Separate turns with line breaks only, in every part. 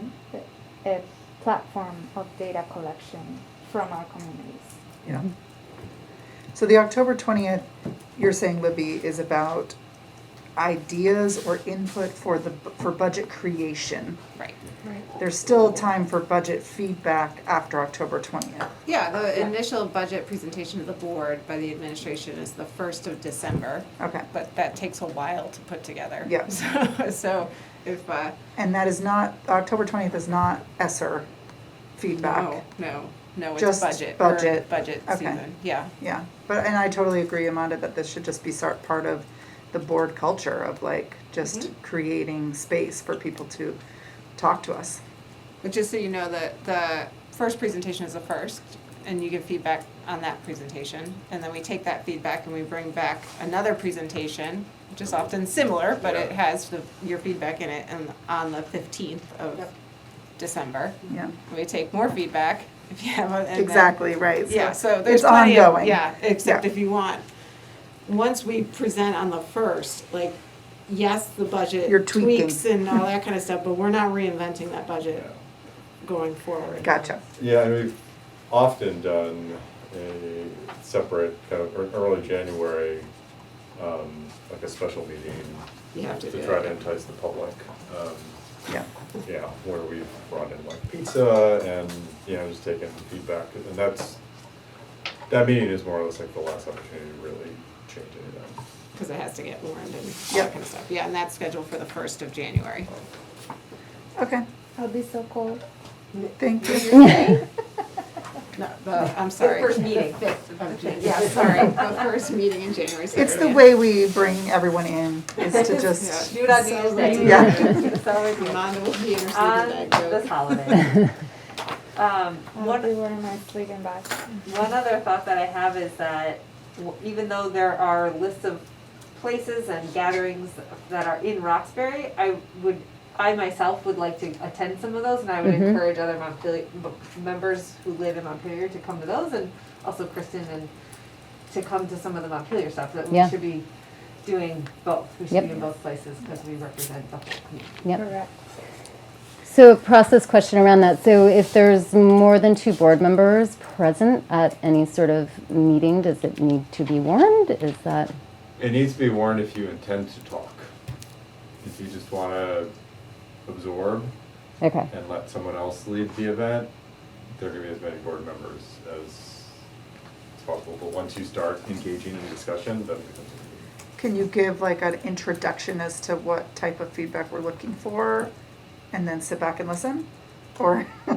um, a platform of data collection from our communities.
Yeah. So the October twentieth, you're saying Libby is about ideas or input for the, for budget creation.
Right.
Right.
There's still time for budget feedback after October twentieth.
Yeah, the initial budget presentation to the board by the administration is the first of December,
Okay.
but that takes a while to put together.
Yeah.
So, so if, uh,
And that is not, October twentieth is not ESER
no,
feedback.
no, no, it's
Just
budget. or
budget.
Budget
Okay.
season, yeah.
Yeah, but, and I totally agree, Amanda, that this should just be sort, part of the board culture of like, just creating space for people to talk to us.
But just so you know, the, the first presentation is the first, and you give feedback on that presentation. And then we take that feedback and we bring back another presentation, which is often similar, but it has the, your feedback in it, and on the fifteenth of December.
Yeah,
And We take more feedback if you have, a- and then-
exactly, right.
Yeah, so there's
it's
plenty of-
ongoing.
Yeah, except
Yeah.
if you want, once we present on the first, like, yes, the budget
You're tweaking.
tweaks and all that kind of stuff, but we're not reinventing that budget going forward.
Gotcha.
Yeah, and we've often done a separate, kind of ear- early January, um, like a special meeting
You have to do
to try to
it.
entice the public. um,
Yeah,
Yeah, where we've brought in like pizza and, you know, just taken feedback, and that's, that meeting is more or less like the last opportunity to really change anything.
Because it has to get warned and all
Yep.
that kind of stuff. Yeah, and that's scheduled for the first of January.
okay,
I'll be so cold.
thank you.
No, the, I'm sorry.
first meeting, fifth of January.
Yeah, sorry, the first meeting in January. so-
It's the way we bring everyone in, is to just,
Yeah.
Do it on New Year's Day.
Yeah.
It's always
Amanda will be interceding
on
that
this
joke.
holiday. Um,
I'll
one,
be wearing my sleeping bag.
one other thought that I have is that w- even though there are lists of places and gatherings that are in Roxbury, I would, I myself would like to attend some of those and I would
Mm-hmm.
encourage other Montpelier, m- members who live in Montpelier to come to those and also Kristen and to come to some of the Montpelier stuff, that we
Yeah.
should be doing both. We
Yep.
should be in both places because we represent the whole community.
Yep.
Correct.
So a process question around that. So if there's more than two board members present at any sort of meeting, does it need to be warned? Is that,
It needs to be warned if you intend to talk. If you just wanna absorb,
okay,
and let someone else lead the event, there are gonna be as many board members as as possible, but once you start engaging in discussion, then it becomes a meeting.
can you give like an introduction as to what type of feedback we're looking for? And then sit back and listen? Or,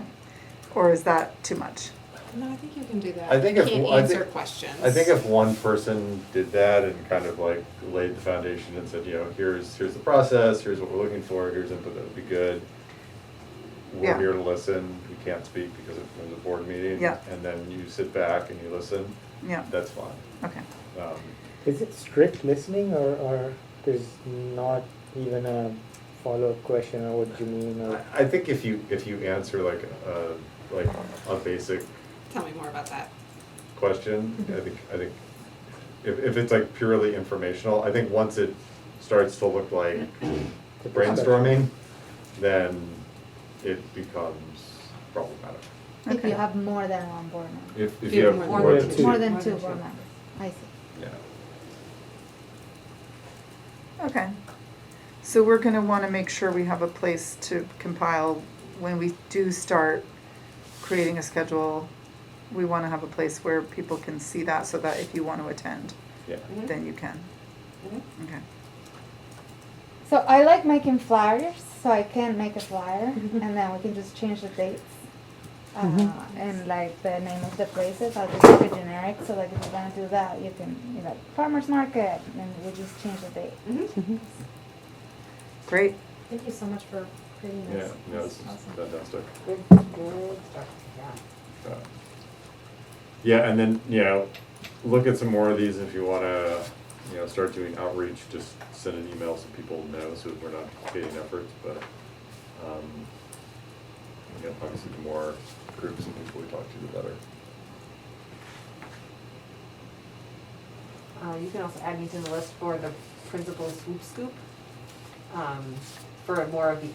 or is that too much?
No, I think you can do that.
I think
You
if-
can't
I
answer
think-
questions.
I think if one person did that and kind of like laid the foundation and said, you know, here's, here's the process, here's what we're looking for, here's input that would be good. We're
Yeah.
here to listen, we can't speak because it was a board meeting.
Yeah.
And then you sit back and you listen,
Yeah,
that's fine.
okay.
Um,
Is it strict listening or, or there's not even a follow-up question or what you mean or?
I, I think if you, if you answer like a, like a basic
Tell me more about that.
question. I think, I think if, if it's like purely informational, I think once it starts to look like brainstorming, then it becomes problematic.
If
Okay.
you have more than one board member,
If, if
Give
you have
more
more than
than
two,
more than
More
two
than
board
two.
members, I see.
yeah.
Okay. So we're gonna wanna make sure we have a place to compile, when we do start creating a schedule, we wanna have a place where people can see that, so that if you wanna attend,
Yeah.
then you can.
Mhm.
Okay,
So I like making flyers, so I can make a flyer, and then we can just change the dates. Uh, and like the name of the places, I'll just make it generic, so like if you're gonna do that, you can, you know, farmer's market, and we just change the date. Mm-hmm.
great,
Thank you so much for creating
Yeah,
this.
no, it's fantastic.
Good, good stuff, yeah.
Uh, Yeah, and then, you know, look at some more of these if you wanna, you know, start doing outreach, just send an email so people know, so we're not duplicating efforts, but, um, you know, obviously the more groups and people we talk to, the better.
Uh, you can also add me to the list for the principal swoop scoop, um, for more of the